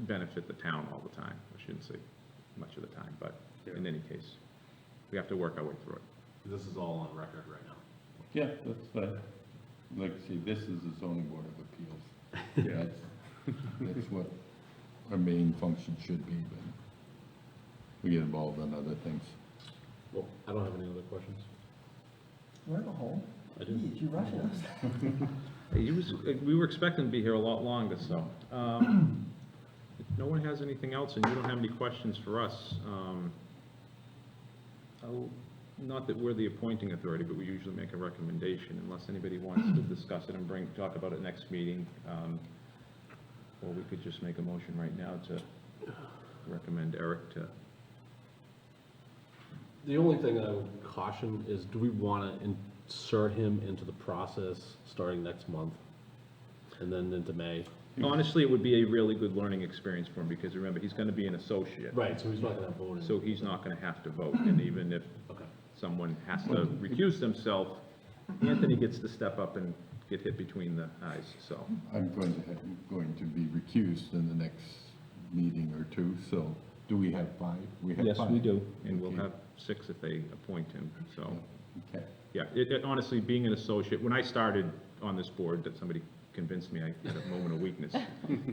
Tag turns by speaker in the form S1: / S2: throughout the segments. S1: benefit the town all the time. I shouldn't say much of the time, but in
S2: Yeah.
S1: any case, we have to work our way through it.
S2: This is all on record right now.
S3: Yeah, that's fine. Like, see, this is the zoning board of appeals. That's, that's what our main function should be, but we get involved in other things.
S2: Well, I don't have any other questions.
S4: We're in a hole.
S2: I do.
S4: Geez, you rushing us.
S1: He was, we were expecting to be here a lot longer, so. um, If no one has anything else and you don't have any questions for us, um, I'll- not that we're the appointing authority, but we usually make a recommendation unless anybody wants to discuss it and bring, talk about it next meeting. um, Or we could just make a motion right now to recommend Eric to,
S2: The only thing I would caution is, do we want to insert him into the process starting next month? And then into May?
S1: honestly, it would be a really good learning experience for him because remember, he's going to be an associate.
S2: Right, so he's not going to vote in.
S1: So he's not going to have to vote. And even if
S2: Okay.
S1: someone has to recuse themselves, Anthony gets to step up and get hit between the eyes, so.
S3: I'm going to, have- going to be recused in the next meeting or two, so do we have five? have five.
S1: And we'll
S3: Okay.
S1: have six if they appoint him, so.
S3: Okay.
S1: Yeah, it, it- honestly, being an associate, when I started on this board, that somebody convinced me I had a moment of weakness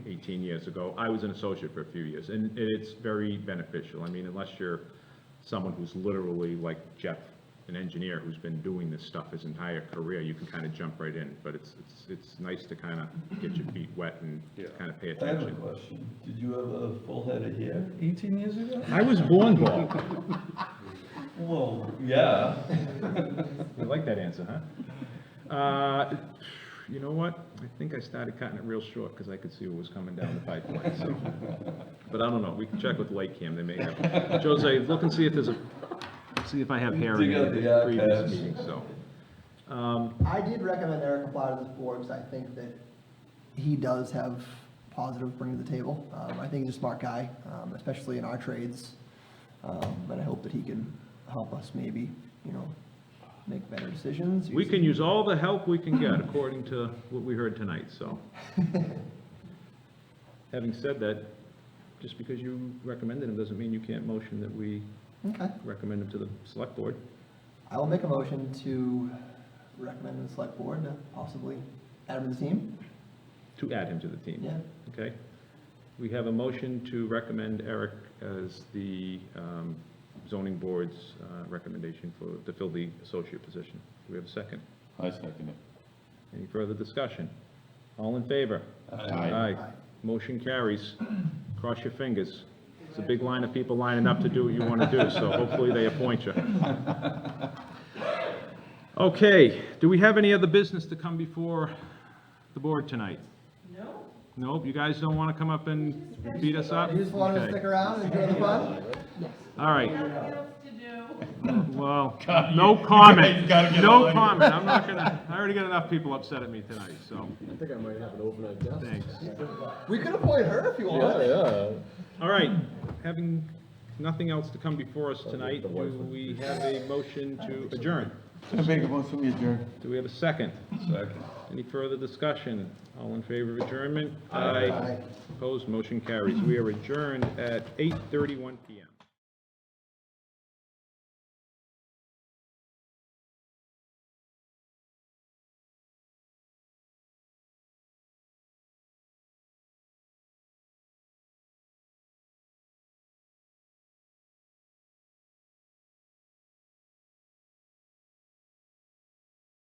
S1: 18 years ago, I was an associate for a few years, and it- it's very beneficial. I mean, unless you're someone who's literally like Jeff, an engineer who's been doing this stuff his entire career, you can kind of jump right in, but it's, it's, it's nice to kind of get your feet wet and kind of pay
S5: I have a
S1: attention.
S5: question. Did you have a full head of hair 18 years ago?
S1: I was born bald.
S5: Well, yeah.
S1: You like that answer, huh? Uh, You know what? I think I started cutting it real short because I could see what was coming down the pipeline, so. But I don't know, we can check with Lake Cam, they may have. Jose, look and see if there's a, see if I have hair in
S5: Dig
S1: any
S5: out
S1: of
S5: the
S1: the previous
S5: archives.
S1: meetings, so.
S4: I did recommend Eric apply to this board because I think that he does have positive bring to the table. Um, I think he's a smart guy, um, especially in our trades. Um, but I hope that he can help us maybe, you know, make better decisions.
S1: We can use all the help we can get according to what we heard tonight, so. Having said that, just because you recommended him doesn't mean you can't motion that we
S4: Okay.
S1: recommend him to the select board.
S4: I will make a motion to recommend the select board to possibly add him to the team.
S1: to add him to the team.
S4: Yeah.
S1: Okay. We have a motion to recommend Eric as the um, zoning board's uh, recommendation for, to fill the associate position. Do we have a second?
S3: I second it.
S1: Any further discussion? All in favor? Aye. Motion carries. Cross your fingers. It's a big line of people lining up to do what you want to do, so hopefully they appoint you. Okay, do we have any other business to come before the board tonight?
S6: No?
S1: Nope, you guys don't want to come up and beat us up?
S4: You just want to
S1: Okay.
S4: stick around and enjoy the fun?
S1: All right,
S6: Nothing else to do.
S1: well, no comment, no comment, I'm not gonna, I already got enough people upset at me tonight, so,
S2: I think I might have an overnight desk.
S1: thanks.
S4: We could appoint her if you want.
S2: yeah.
S1: All right, having nothing else to come before us tonight, do we have a motion to adjourn?
S3: I make a motion, we adjourn.
S1: Do we have a second?
S5: Second.
S1: Any further discussion? All in favor of adjournment? Aye. Opposed, motion carries. We are adjourned at 8:31 PM.